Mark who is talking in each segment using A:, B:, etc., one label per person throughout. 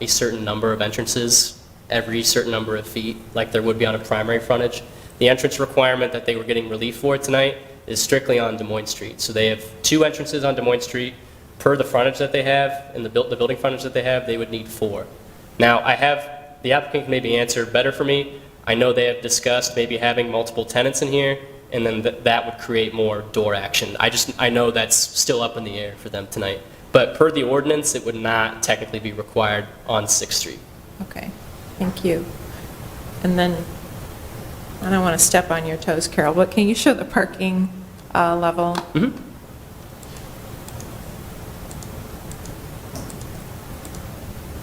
A: a certain number of entrances every certain number of feet, like there would be on a primary frontage. The entrance requirement that they were getting relief for tonight is strictly on Des Moines Street. So they have two entrances on Des Moines Street. Per the frontage that they have and the buil- the building frontage that they have, they would need four. Now, I have, the applicant can maybe answer better for me. I know they have discussed maybe having multiple tenants in here, and then th- that would create more door action. I just, I know that's still up in the air for them tonight. But per the ordinance, it would not technically be required on Sixth Street.
B: Okay, thank you. And then, I don't want to step on your toes, Carol, but can you show the parking uh, level?
A: Mm-hmm.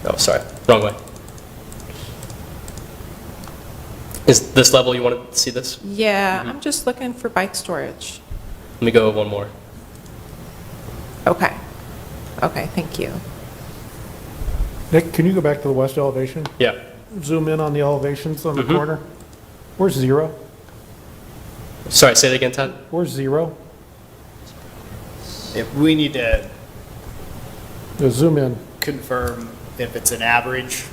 A: Oh, sorry, wrong way. Is this level, you want to see this?
B: Yeah,
C: Mm-hmm.
B: I'm just looking for bike storage.
A: Let me go one more.
B: Okay, okay, thank you.
D: Nick, can you go back to the west elevation?
A: Yeah,
D: Zoom in on the elevations on the corner? Where's zero?
A: sorry, say that again, Todd?
D: Where's zero?
C: If we need to
D: No, Zoom in.
C: confirm if it's an average,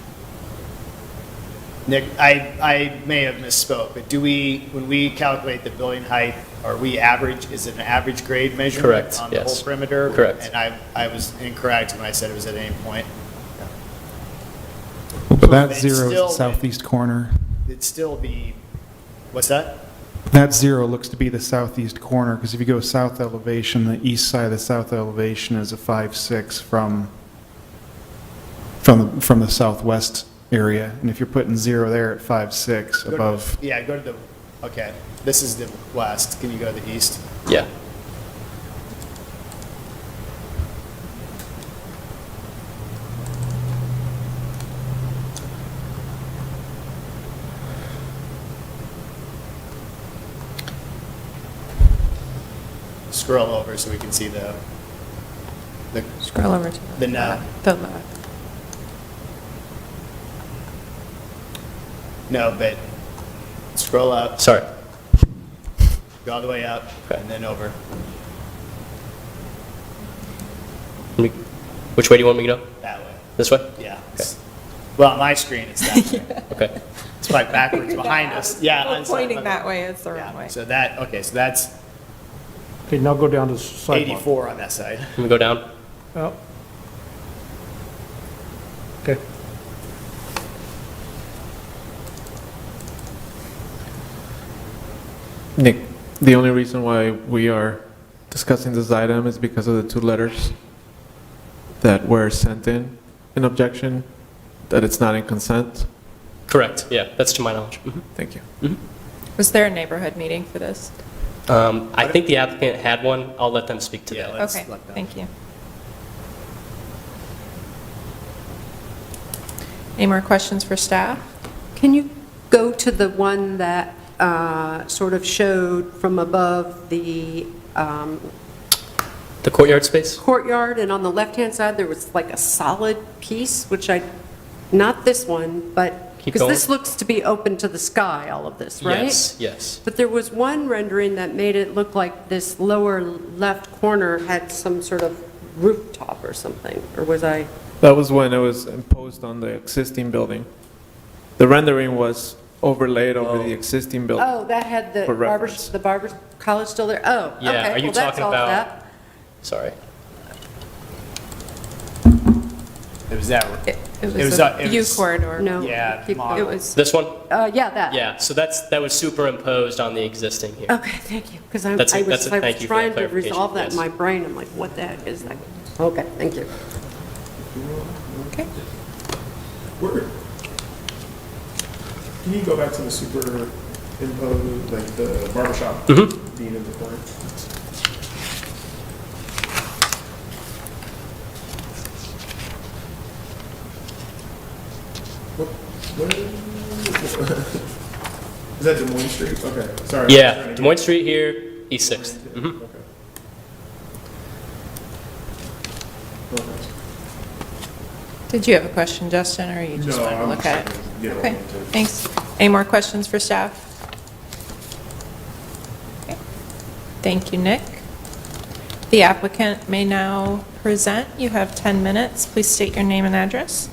C: Nick, I, I may have misspoke, but do we, when we calculate the building height, are we average, is it an average grade measurement?
A: Correct,
C: On the whole
A: yes.
C: perimeter?
A: Correct.
C: And I, I was incorrect when I said it was at any point.
E: But that
C: it's
E: zero is the
C: still-
E: southeast corner.
C: It'd still be, what's that?
E: That zero looks to be the southeast corner, because if you go south elevation, the east side of the south elevation is a five, six from, from, from the southwest area. And if you're putting zero there at five, six
C: Go to-
E: above,
C: Yeah, go to the, okay, this is the west, can you go to the east?
A: Yeah.
C: Scroll over so we can see the, the
B: Scroll over to the
C: The no.
B: left. The left.
C: No, but scroll up,
A: Sorry.
C: go all the way up,
A: Okay.
C: and then over.
A: Let me- Which way do you want me to go?
C: That way,
A: This way?
C: yeah. Well, on my screen, it's that way.
A: Okay.
C: It's like backwards behind us, yeah. I'm sorry,
B: Pointing
C: my bad.
B: that way is the wrong
C: Yeah,
B: way.
C: So that, okay, so that's
D: Okay, now go down to sidewalk.
C: 84 on that side.
A: Let me go down.
D: Oh. Okay.
F: Nick, the only reason why we are discussing this item is because of the two letters that were sent in, in objection, that it's not in consent.
A: Correct, yeah, that's to my knowledge. Mhm.
F: Thank you.
B: Was there a neighborhood meeting for this?
A: Um, I think the applicant had one. I'll let them speak to
C: Yeah,
A: that.
C: let- Let's
B: Okay,
C: let them-
B: thank you. Any more questions for staff?
G: Can you go to the one that uh, sort of showed from above the um,
A: The courtyard space?
G: courtyard, and on the left-hand side, there was like a solid piece, which I, not this one, but,
A: Keep
G: because
A: going.
G: this looks to be open to the sky, all of this, right?
A: Yes, yes.
G: But there was one rendering that made it look like this lower left corner had some sort of rooftop or something, or was I?
F: That was when it was imposed on the existing building. The rendering was overlaid over the existing building.
G: Oh, that had the
F: For
G: barber's,
F: reference.
G: the barber's college still there? Oh, okay.
A: Yeah, are you
G: Well, that's
A: talking
G: all of
A: about-
G: that.
A: Sorry.
C: It was that,
B: It it
C: was
B: was
C: not-
B: a
C: it
B: view
C: was-
B: corridor.
G: No.
C: yeah.
G: Keep
C: mom.
G: going.
B: It was,
A: This one?
G: Uh, yeah, that.
A: Yeah, so that's, that was superimposed on the existing here.
G: Okay, thank you, because I
A: That's it,
G: I
A: that's
G: was,
A: it,
G: I
A: thank
G: was
A: you for that
G: trying to
A: clarification,
G: resolve that
A: yes.
G: in my brain, I'm like, what the heck is that? Okay, thank you.
B: okay.
H: Word. Can you go back to the superimpose, like the barbershop being in the corner? What, what is this? Is that Des Moines Street? Okay, sorry. I was trying to
A: Yeah,
H: get-
A: Des Moines Street here, East Sixth.
H: Okay. Okay.
B: Did you have a question, Justin, or you just
H: No,
B: wanted to
H: I'm
B: look
H: just
B: at it?
H: gonna get
B: Okay,
H: over it.
B: thanks. Any more questions for staff? Okay. Thank you, Nick. The applicant may now present. You have 10 minutes. Please state your name and address.